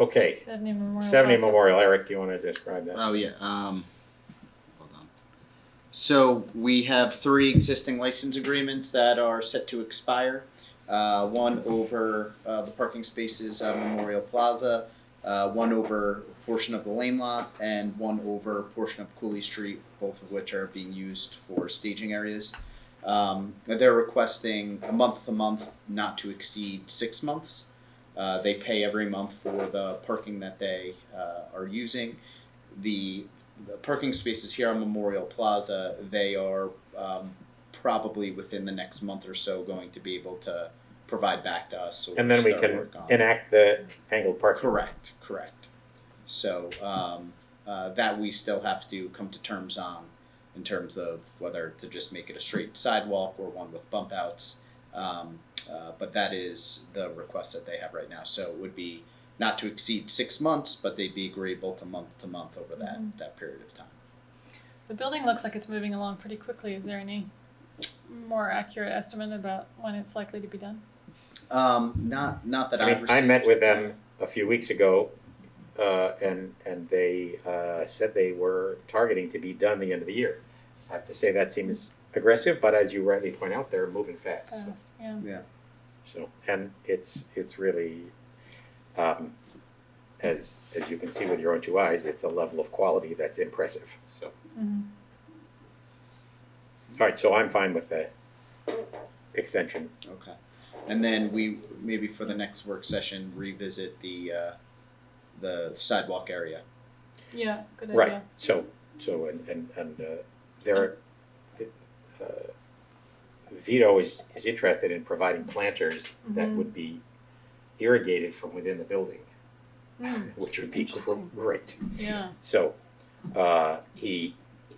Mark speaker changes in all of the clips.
Speaker 1: Okay,
Speaker 2: Seventy Memorial.
Speaker 1: seventy
Speaker 2: Plaza.
Speaker 1: Memorial, Eric, do you wanna describe that?
Speaker 3: Oh yeah. Um, hold on. So we have three existing license agreements that are set to expire. Uh, one over uh, the parking spaces at Memorial Plaza, uh, one over a portion of the lane lot, and one over a portion of Cooley Street, both of which are being used for staging areas. Um, they're requesting a month to month, not to exceed six months. Uh, they pay every month for the parking that they uh, are using the, the parking spaces here on Memorial Plaza, they are um, probably within the next month or so going to be able to provide back to us. So
Speaker 1: And then we
Speaker 3: start
Speaker 1: can
Speaker 3: work on-
Speaker 1: enact the angled parking.
Speaker 3: Correct, correct. So um, uh, that we still have to come to terms on in terms of whether to just make it a straight sidewalk or one with bump outs. Um, uh, but that is the request that they have right now. So it would be not to exceed six months, but they'd be agreeable to month to month over that,
Speaker 2: Mhm.
Speaker 3: that period of time.
Speaker 2: The building looks like it's moving along pretty quickly. Is there any more accurate estimate about when it's likely to be done?
Speaker 3: Um, not not that
Speaker 1: I
Speaker 3: I've
Speaker 1: mean, I
Speaker 3: received.
Speaker 1: met with them a few weeks ago, uh, and, and they, uh, said they were targeting to be done the end of the year. I have to say, that seems aggressive, but as you rightly point out, they're moving fast, so.
Speaker 2: Fast, yeah.
Speaker 3: Yeah.
Speaker 1: So, and it's, it's really, um, as, as you can see with your own two eyes, it's a level of quality that's impressive, so.
Speaker 2: Mhm.
Speaker 1: All right, so I'm fine with the extension.
Speaker 3: Okay. And then we maybe for the next work session revisit the uh, the sidewalk area.
Speaker 2: Yeah, good idea.
Speaker 1: Right, so, so, and, and, and uh, there, are- uh, Vito is, is interested in providing planters that
Speaker 2: Mhm.
Speaker 1: would be irrigated from within the building,
Speaker 2: Mm,
Speaker 1: which would be
Speaker 2: Interesting.
Speaker 1: great.
Speaker 2: yeah.
Speaker 1: So, uh, he,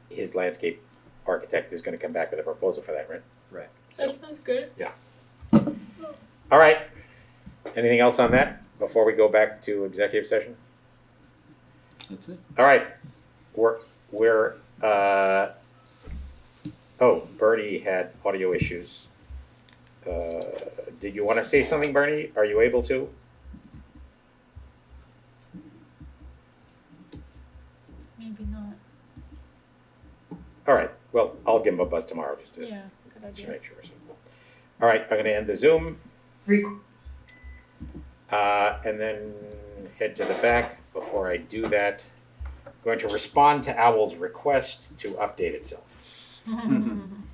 Speaker 1: his landscape architect is gonna come back with a proposal for that, right?
Speaker 2: That sounds good.
Speaker 1: All right, anything else on that before we go back to executive session?
Speaker 3: That's it.
Speaker 1: All right, we're, we're, uh, oh, Bernie had audio issues. Uh, Did you want to say something, Bernie? Are you able to?
Speaker 2: Maybe not.
Speaker 1: All right, well, I'll give him a buzz tomorrow just to,
Speaker 2: Yeah, good
Speaker 1: just to
Speaker 2: idea.
Speaker 1: make sure. All right, I'm going to end the Zoom. Uh, and then head to the back. Before I do that, I'm going to respond to Owl's request to update itself.
Speaker 3: Mhm.